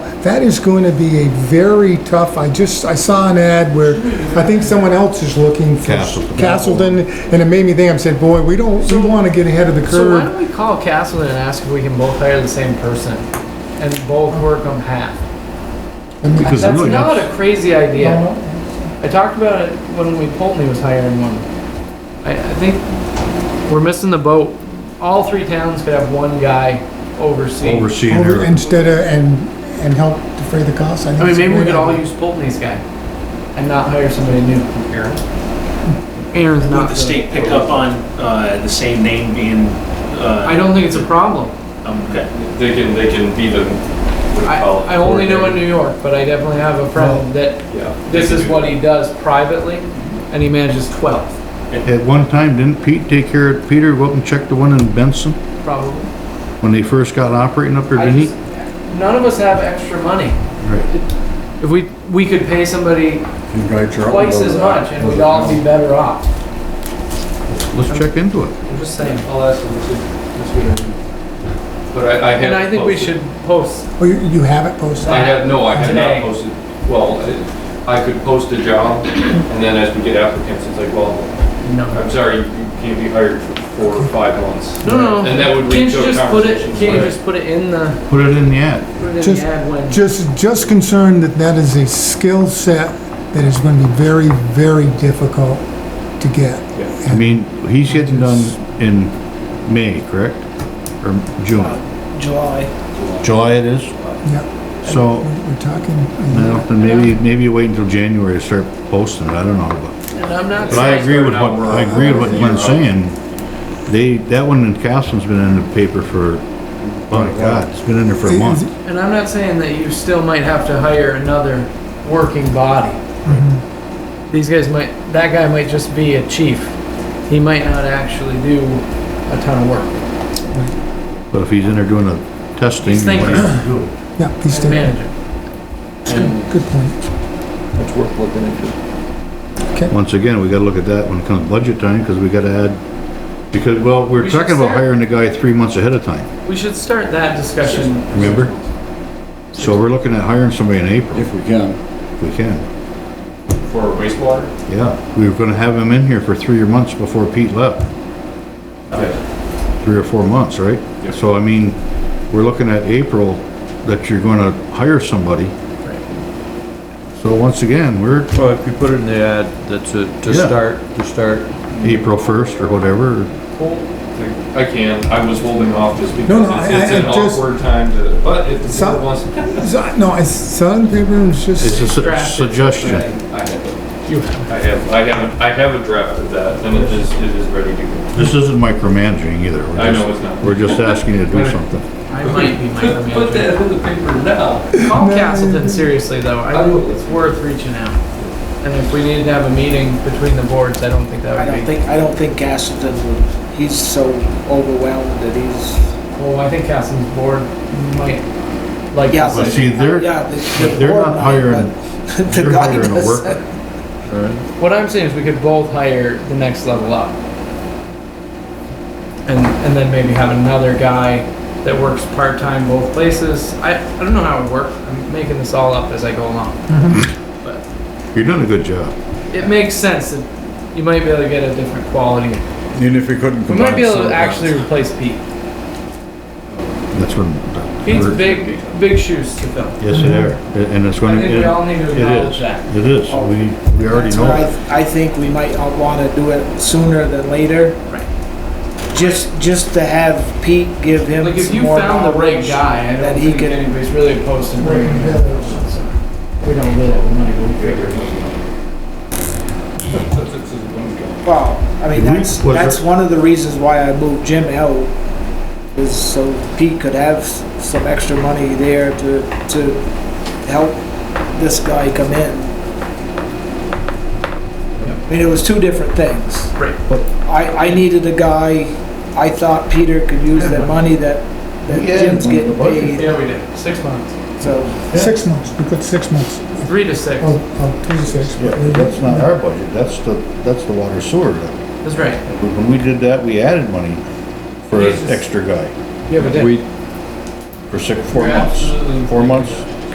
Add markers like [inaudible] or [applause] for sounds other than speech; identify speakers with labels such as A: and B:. A: that is going to be a very tough, I just, I saw an ad where, I think someone else is looking for
B: Castleton.
A: Castleton, and it made me think, I said, boy, we don't, we want to get ahead of the
C: So why
A: curve.
C: don't we call Castleton and ask if we can both hire the same person and both work on half?
B: Because
C: That's
B: really,
C: not
B: that's-
C: a crazy idea. I talked about it when we Pulteney was hiring one. I, I think we're missing the boat. All three towns could have one guy oversee.
B: overseeing
A: Over-
B: her,
A: Instead of, and, and help defray the cost, I think.
C: I mean,
A: it's a
C: maybe we
A: great
C: could all
A: idea.
C: use Pulteney's guy and not hire somebody new. Aaron. Aaron's not.
D: Would the state pick up on uh, the same name being? uh,
C: I don't think it's a problem.
D: um, Okay.
E: They can, they can be the, what do you
C: I,
E: call it?
C: I only know in New York, but I definitely have a
B: Oh.
C: friend that
E: Yeah.
C: this is what he does privately and he manages 12,
B: at one time, didn't Pete take care of, Peter go up and check the one in Benson?
C: probably.
B: When they first got operating up there,
C: I
B: didn't he?
C: just- None of us have extra money.
B: Right.
C: If we, we could pay somebody
F: You write your own
C: twice as
F: little-
C: much and we'd all be better off.
B: Let's check into it.
C: I'm just saying.
E: I'll ask them to, to speak. But I, I have.
C: And I think we
E: posted-
C: should post.
A: Oh, you, you have it posted?
E: I have, no, I have
C: Today.
E: not posted, well, I- I could post a job, and then as we get applicants, it's like, well,
C: No.
E: I'm sorry, you can't be hired for four or five months.
C: No, no.
E: And that would lead
C: Can't you
E: to a
C: just put it,
E: conversation.
C: can't you just put it in the,
B: Put it in the ad.
C: put it in
A: Just-
C: the ad when?
A: Just, just concerned that that is a skill set that is going to be very, very difficult to get.
B: I mean, he's getting done in May, correct? Or June?
D: July.
B: July it is?
A: Yep,
B: So,
A: we're talking.
B: I don't know, maybe, maybe wait until January to start posting it, I don't know, but.
C: And I'm not
B: But I
C: saying,
B: agree with what, I agree with what Glenn's saying. They, that one in Castleton's been in the paper for, my God, it's been in there for a month.
C: and I'm not saying that you still might have to hire another working body.
G: Mm-hmm.
C: These guys might, that guy might just be a chief. He might not actually do a ton of work.
B: But if he's in there doing a testing.
C: He's thinking.
A: Yeah, he's
C: He's the
A: still,
C: manager.
A: good point.
F: It's worth looking into.
B: Once again, we gotta look at that when it comes budget time, cause we gotta add, because, well, we
C: We
B: we're
C: should
B: talking about
C: start-
B: hiring the guy three months ahead of time,
C: We should start that discussion.
B: remember? So we're looking at hiring somebody in April,
F: If we can.
B: if we can.
E: For wastewater?
B: Yeah, we were gonna have him in here for three months before Pete left.
E: Yeah.
B: three or four months, right?
E: Yep.
B: So I mean, we're looking at April that you're gonna hire somebody. So once again, we're
H: Well, if you put it in the ad, that's it, to
B: Yeah.
H: start, to start.
B: April first or whatever,
E: I can, I was holding off just
A: No,
E: because
A: no, I-
E: it's it's
A: I-
E: an
A: I just-
E: awkward time to, but if the
A: Some-
E: board wants.
A: So, No, I saw it in the paper and it's
B: it's a
A: just,
B: su-
C: Draft it.
B: suggestion.
E: I have,
C: You have.
E: I have, I have, I have a draft of that, and it is, it is ready to go.
B: This isn't micromanaging either. We're
E: I know
B: just-
E: it's not.
B: We're just asking you to do something.
C: I might be micromanaging.
E: Put that in the paper now.
C: Call Castleton seriously though. I think it's worth reaching out. And if we needed to have a meeting between the boards, I don't think
G: I
C: that would
G: don't
C: be.
G: think, I don't think Castleton would, he's so overwhelmed that he's,
C: Well, I think Castleton's board might like
G: Yeah.
B: But
C: this.
B: see, they're,
G: yeah. the- the
B: they're
G: board
B: not
G: might,
B: hiring,
G: but [laughs] The
B: they're
G: guy
B: hiring a
G: does-
B: worker.
C: What I'm saying is we could both hire the next level up. And, and then maybe have another guy that works part-time both places. I, I don't know how it would work. I'm making this all up as I go along.
B: You're doing a good job.
C: It makes sense that you might be able to get a different quality.
F: Even if we couldn't
C: We
F: combine.
C: might be able to
F: certain
C: actually
F: ones.
C: replace Pete.
B: That's when.
C: Pete's big, big shoes to fill.
B: Yes, they are. And it's
C: I
B: gonna.
C: think we all need to
B: it
C: acknowledge
B: is.
C: that.
B: It is. We, we already
G: That's
B: know.
G: why I, I think we might want to do it sooner than later.
C: Right.
G: Just, just to have Pete give him
C: Like if
G: some
C: you
G: more
C: found the right
G: knowledge
C: guy, I
G: That
C: don't
G: he
C: think
G: can,
C: anybody's really opposed to bringing him. in. We don't really have the money, but we figure it out.
G: well, I mean,
B: Did we-
G: that's,
B: was
G: that's
B: it-
G: one of the reasons why I moved Jim out. Is so Pete could have s- some extra money there to, to help this guy come in. I mean, it was two different things.
C: Right.
G: I, I needed a guy, I thought Peter could use the money that, that
F: Yeah,
G: Jim's
F: on the
G: getting
F: budget.
G: paid,
C: Yeah, we did. Six months.
G: so.
A: six months, we put six months.
C: Three to six.
A: Oh, oh, three to six.
B: Yeah, that's not our budget, that's the, that's the water sewer.
C: That's right.
B: When we did that, we added money for an extra guy,
C: Yeah, but then.
H: We,
B: for six, four months, four months.